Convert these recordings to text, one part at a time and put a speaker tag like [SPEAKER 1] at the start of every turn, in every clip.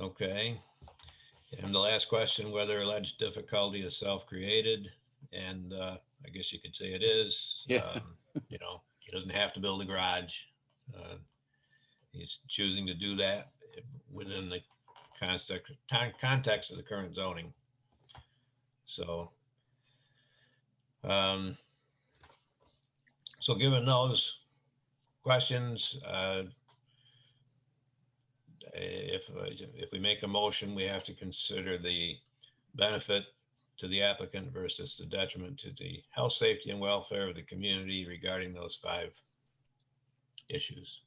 [SPEAKER 1] Okay. And the last question, whether alleged difficulty is self-created, and uh, I guess you could say it is.
[SPEAKER 2] Yeah.
[SPEAKER 1] Um, You know, he doesn't have to build a garage. Uh, He's choosing to do that within the context, con- context of the current zoning. So. um, So given those questions, uh, if, if we make a motion, we have to consider the benefit to the applicant versus the detriment to the health, safety, and welfare of the community regarding those five issues.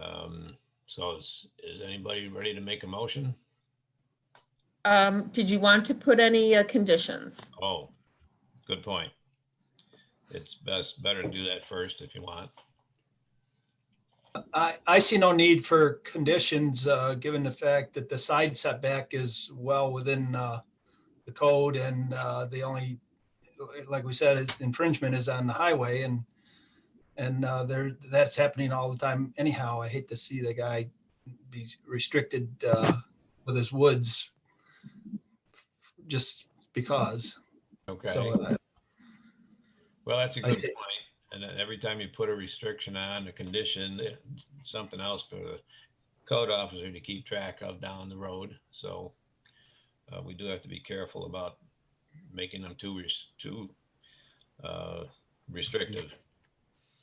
[SPEAKER 1] Um, So is, is anybody ready to make a motion?
[SPEAKER 3] Um, did you want to put any uh, conditions?
[SPEAKER 1] Oh, good point. It's best, better to do that first if you want.
[SPEAKER 4] I, I see no need for conditions, uh, given the fact that the side setback is well within, uh, the code and, uh, the only, like we said, it's infringement is on the highway and, and, uh, there, that's happening all the time anyhow. I hate to see the guy be restricted, uh, with his woods just because.
[SPEAKER 1] Okay.
[SPEAKER 4] So uh, I-
[SPEAKER 1] Well, that's a
[SPEAKER 4] I
[SPEAKER 1] good
[SPEAKER 4] thi-
[SPEAKER 1] point. And then every time you put a restriction on a condition, it- something else for the code officer to keep track of down the road. So uh, we do have to be careful about making them too, res- too uh, restrictive.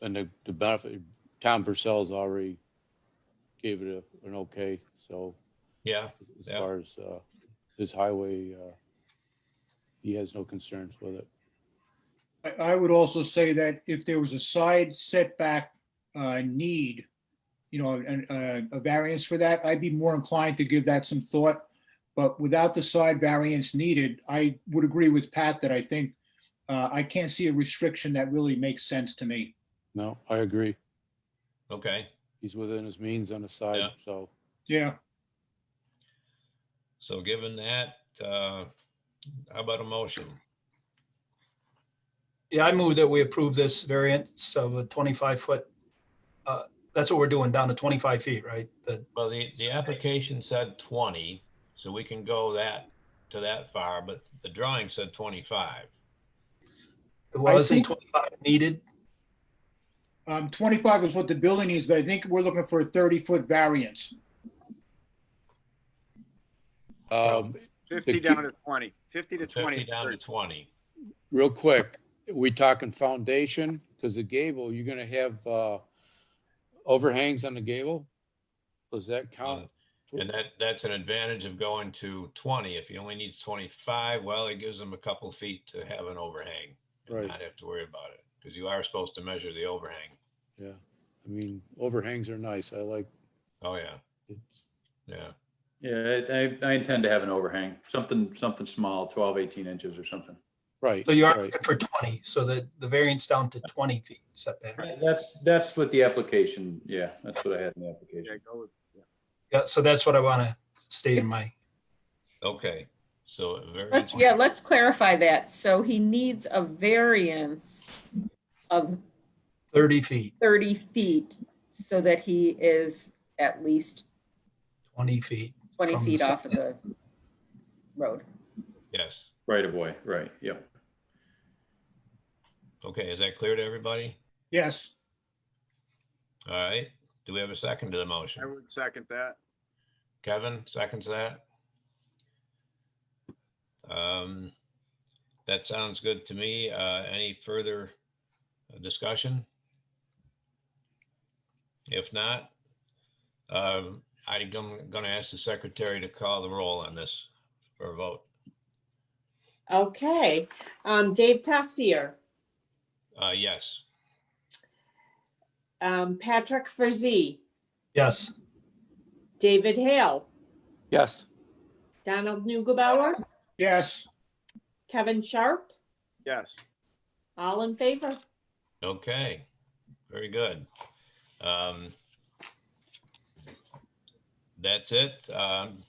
[SPEAKER 2] And the, the benefit, Tom Purcell's already gave it a, an okay, so
[SPEAKER 1] Yeah,
[SPEAKER 2] as
[SPEAKER 1] Yeah.
[SPEAKER 2] far as, uh, his highway, uh, he has no concerns with it.
[SPEAKER 5] I, I would also say that if there was a side setback uh, need, you know, and uh, a variance for that, I'd be more inclined to give that some thought. But without the side variance needed, I would agree with Pat that I think uh, I can't see a restriction that really makes sense to me.
[SPEAKER 2] No, I agree.
[SPEAKER 1] okay.
[SPEAKER 2] He's within his means on the side,
[SPEAKER 1] Yeah.
[SPEAKER 2] so
[SPEAKER 5] Yeah,
[SPEAKER 1] So given that, uh, how about a motion?
[SPEAKER 4] Yeah, I move that we approve this variance of a 25-foot. That's what we're doing, down to 25 feet, right? The-
[SPEAKER 1] Well, the, the application said 20, so we can go that, to that far, but the drawing said 25.
[SPEAKER 4] It wasn't
[SPEAKER 5] think-
[SPEAKER 4] 25 needed.
[SPEAKER 5] um, 25 is what the building needs, but I think we're looking for a 30-foot variance.
[SPEAKER 2] Um,
[SPEAKER 6] 50
[SPEAKER 2] The-
[SPEAKER 6] down to 20, 50 to 20.
[SPEAKER 1] 50 down to 20.
[SPEAKER 2] real quick, we talking foundation? Because the gable, you're gonna have, uh, overhangs on the gable? Does that count?
[SPEAKER 1] Uh, And that, that's an advantage of going to twenty. If he only needs twenty-five, well, it gives him a couple feet to have an overhang. And
[SPEAKER 2] Right.
[SPEAKER 1] not have to worry about it, because you are supposed to measure the overhang.
[SPEAKER 2] Yeah, I mean, overhangs are nice. I like,
[SPEAKER 1] Oh, yeah,
[SPEAKER 2] it's,
[SPEAKER 1] yeah.
[SPEAKER 7] Yeah, I, I I intend to have an overhang, something, something small, 12, 18 inches or something.
[SPEAKER 2] right.
[SPEAKER 4] So you are
[SPEAKER 2] right.
[SPEAKER 4] looking for 20, so that the variance down to 20 feet setback.
[SPEAKER 7] That's, that's what the application, yeah, that's what I had in the
[SPEAKER 6] Yeah,
[SPEAKER 7] application.
[SPEAKER 6] go with- yeah.
[SPEAKER 4] Yeah, so that's what I want to state in my,
[SPEAKER 1] Okay, so. a very
[SPEAKER 3] Let's,
[SPEAKER 1] good
[SPEAKER 3] yeah,
[SPEAKER 1] point.
[SPEAKER 3] let's clarify that. So he needs a variance of
[SPEAKER 4] 30 feet,
[SPEAKER 3] 30 feet so that he is at least
[SPEAKER 4] 20 feet.
[SPEAKER 3] 20
[SPEAKER 4] From the
[SPEAKER 3] feet
[SPEAKER 4] side.
[SPEAKER 3] off of the road.
[SPEAKER 1] Yes.
[SPEAKER 7] Right of way, right, yep.
[SPEAKER 1] Okay, is that clear to everybody?
[SPEAKER 5] Yes,
[SPEAKER 1] All right, do we have a second to the
[SPEAKER 6] I
[SPEAKER 1] motion?
[SPEAKER 6] would second that.
[SPEAKER 1] Kevin seconds that? Um, that sounds good to me. Uh, any further uh, discussion? If not, um, I'm gonna ask the secretary to call the roll on this for a vote.
[SPEAKER 8] Okay, um, Dave Tassier,
[SPEAKER 1] Uh, yes,
[SPEAKER 8] um, Patrick Frazee,
[SPEAKER 4] Yes,
[SPEAKER 8] David Hale,
[SPEAKER 2] Yes,
[SPEAKER 8] Donald Nugebauer,
[SPEAKER 5] yes,
[SPEAKER 8] Kevin Sharp,
[SPEAKER 6] Yes.
[SPEAKER 8] all in favor?
[SPEAKER 1] okay, very good. Um, that's it. Um,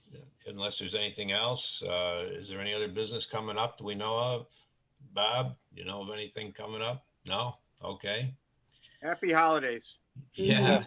[SPEAKER 1] unless there's anything else, uh, is there any other business coming up that we know of? Bob, you know of anything coming up? No? Okay.
[SPEAKER 6] Happy holidays.
[SPEAKER 1] Yeah.